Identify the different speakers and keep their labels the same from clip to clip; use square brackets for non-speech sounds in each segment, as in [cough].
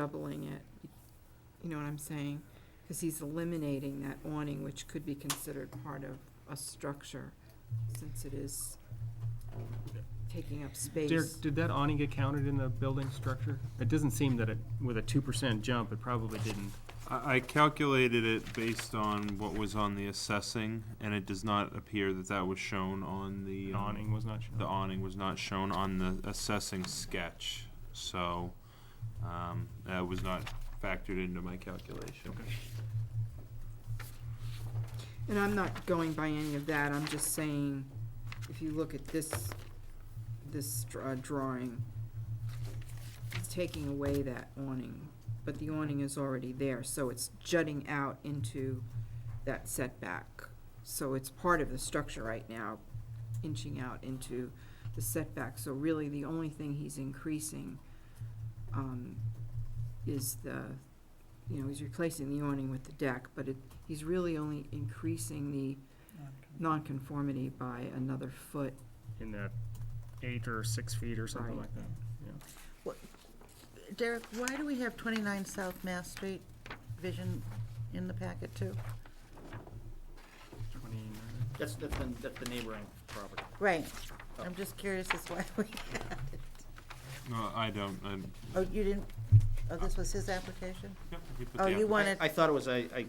Speaker 1: doubling it. You know what I'm saying? Because he's eliminating that awning, which could be considered part of a structure, since it is taking up space.
Speaker 2: Derek, did that awning get counted in the building structure? It doesn't seem that it, with a two percent jump, it probably didn't.
Speaker 3: I, I calculated it based on what was on the assessing, and it does not appear that that was shown on the.
Speaker 2: The
Speaker 3: um,
Speaker 2: awning was not
Speaker 3: The
Speaker 2: shown.
Speaker 3: awning was not shown on the assessing sketch, so, um, that was not factored into my calculation.
Speaker 2: Okay.
Speaker 1: And I'm not going by any of that, I'm just saying, if you look at this, this dr- uh, drawing, it's taking away that awning, but the awning is already there, so it's jutting out into that setback. So it's part of the structure right now, inching out into the setback, so really the only thing he's increasing, um, is the, you know, he's replacing the awning with the deck, but it, he's really only increasing the nonconformity by another foot.
Speaker 2: In that eight or six feet or something
Speaker 1: Right.
Speaker 2: like that.
Speaker 4: Derek, why do we have 29 South Mass Street Vision in the packet too?
Speaker 2: Twenty-nine.
Speaker 5: That's, that's the, that's the neighboring property.
Speaker 4: Right. I'm just curious as why we had it.
Speaker 3: No, I don't, i
Speaker 4: Oh, you didn't, oh, this was his application?
Speaker 3: yep, you put
Speaker 4: Oh,
Speaker 3: the
Speaker 4: you
Speaker 3: app-
Speaker 5: I-
Speaker 4: wanted,
Speaker 5: I thought it was, I, I,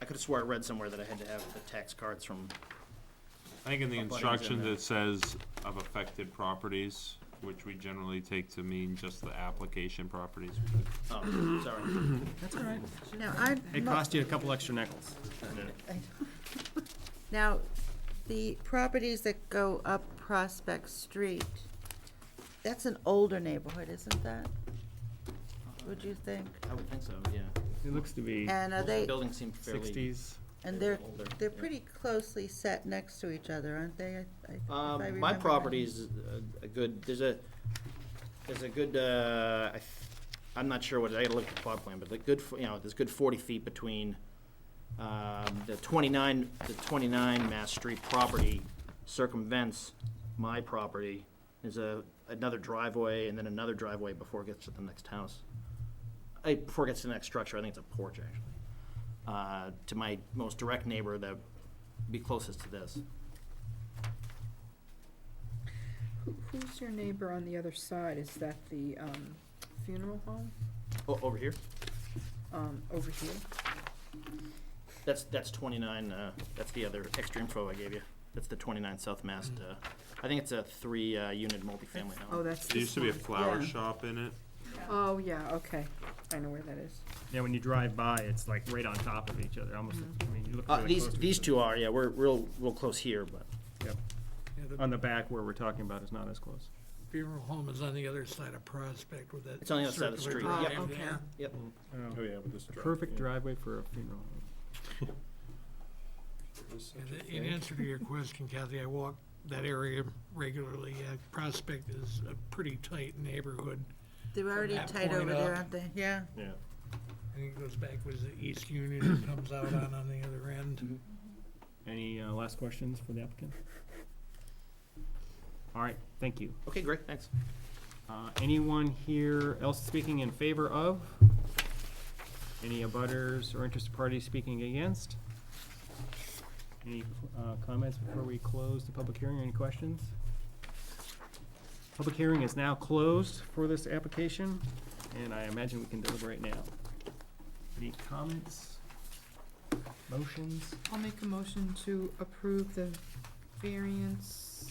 Speaker 5: I could've swore I read somewhere that I had to have the tax cards from,
Speaker 3: I think in the
Speaker 5: Abutting's in
Speaker 3: instruction
Speaker 5: there.
Speaker 3: that says of affected properties, which we generally take to mean just the application properties.
Speaker 5: oh, sorry.
Speaker 2: That's all right.
Speaker 4: now, I.
Speaker 2: It cost you a couple extra nickels.
Speaker 4: [laughs] Now, the properties that go up Prospect Street, that's an older neighborhood, isn't that? Would you think?
Speaker 5: I would think so, yeah.
Speaker 2: It looks to be
Speaker 4: And are
Speaker 5: Most of the
Speaker 4: they,
Speaker 5: Buildings seem fairly,
Speaker 2: sixties.
Speaker 4: and
Speaker 5: they're
Speaker 4: they're,
Speaker 5: older,
Speaker 4: they're
Speaker 5: yeah.
Speaker 4: pretty closely set next to each other, aren't they? I- I- if I
Speaker 5: um,
Speaker 4: remember
Speaker 5: my
Speaker 4: right.
Speaker 5: property's a, a good, there's a, there's a good, uh, I, th- I'm not sure what, it- I gotta look at the plot plan, but the good, f- you know, there's good forty feet between, um, the twenty-nine, the twenty-nine Mass Street property circumvents my property. There's a, another driveway and then another driveway before it gets to the next house. I, before it gets to the next structure, I think it's a porch, actually. Uh, to my most direct neighbor that be closest to this.
Speaker 1: Who's your neighbor on the other side? Is that the um, funeral home
Speaker 5: O- Oh, over here?
Speaker 1: um, over here?
Speaker 5: That's, that's twenty-nine, uh, that's the other extra info I gave you. That's the twenty-nine South Mast,
Speaker 2: Mm-hmm.
Speaker 5: uh, I think it's a three, uh, unit multifamily
Speaker 1: Oh,
Speaker 5: home.
Speaker 1: that's
Speaker 3: There used
Speaker 1: this
Speaker 3: to be a
Speaker 1: one.
Speaker 3: flower
Speaker 1: Yeah.
Speaker 3: shop in it.
Speaker 1: Oh, yeah, okay. I know where that is.
Speaker 2: Yeah, when you drive by, it's like right on top of each other, almost, I mean, you look
Speaker 5: Uh,
Speaker 2: really
Speaker 5: these,
Speaker 2: close to
Speaker 5: these
Speaker 2: each
Speaker 5: two are, yeah, we're real, real close here, but
Speaker 2: other. Yep. On the back where we're talking about is not as close.
Speaker 6: funeral home is on the other side of Prospect with that.
Speaker 5: It's on the other side of the
Speaker 6: circular
Speaker 5: street,
Speaker 6: drive
Speaker 1: yep. Ah, okay.
Speaker 6: there.
Speaker 2: Oh,
Speaker 3: yeah, with this
Speaker 2: Perfect driveway for a funeral.
Speaker 6: And In answer to your question, Kathy, I walk that area regularly. Uh, Prospect is a pretty tight neighborhood.
Speaker 4: They're already
Speaker 6: that
Speaker 4: tight
Speaker 6: point
Speaker 4: over there,
Speaker 6: up.
Speaker 4: aren't they? Yeah.
Speaker 2: Yeah.
Speaker 6: I think it goes back with the East Union and comes out on, on the other
Speaker 5: Mm-hmm.
Speaker 6: end.
Speaker 2: Any uh, last questions for the applicant? All right, thank you.
Speaker 5: Okay, great, thanks.
Speaker 2: Uh, Anyone here else speaking in favor of? Any abutters or interested parties speaking against? Any uh, comments before we close the public hearing, any questions? Public hearing is now closed for this application, and I imagine we can deliberate now. Any comments? Motions?
Speaker 1: I'll make a motion to approve the variances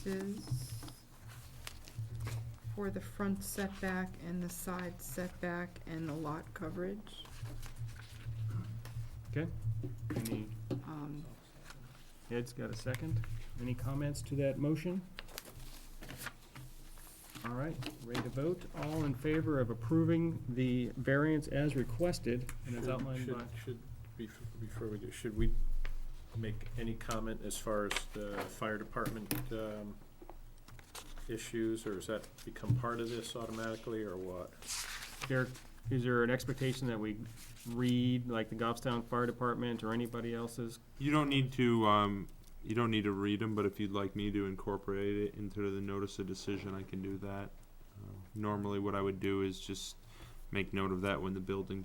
Speaker 1: for the front setback and the side setback and the lot coverage.
Speaker 2: Any,
Speaker 1: Um,
Speaker 2: Ed's got a second? Any comments to that motion? All right, ready to vote. All in favor of approving the variance as requested and as
Speaker 7: Should-
Speaker 2: outlined
Speaker 7: should-
Speaker 2: by,
Speaker 7: Should, bef- before we do, should we make any comment as far as the fire department um, issues, or does that become part of this automatically, or what?
Speaker 2: Derek, is there an expectation that we read, like, the Goffstown Fire Department or anybody else's?
Speaker 3: You don't need to, um, you don't need to read them, but if you'd like me to incorporate it into the notice of decision, I can do that. Uh, Normally, what I would do is just make note of that when the building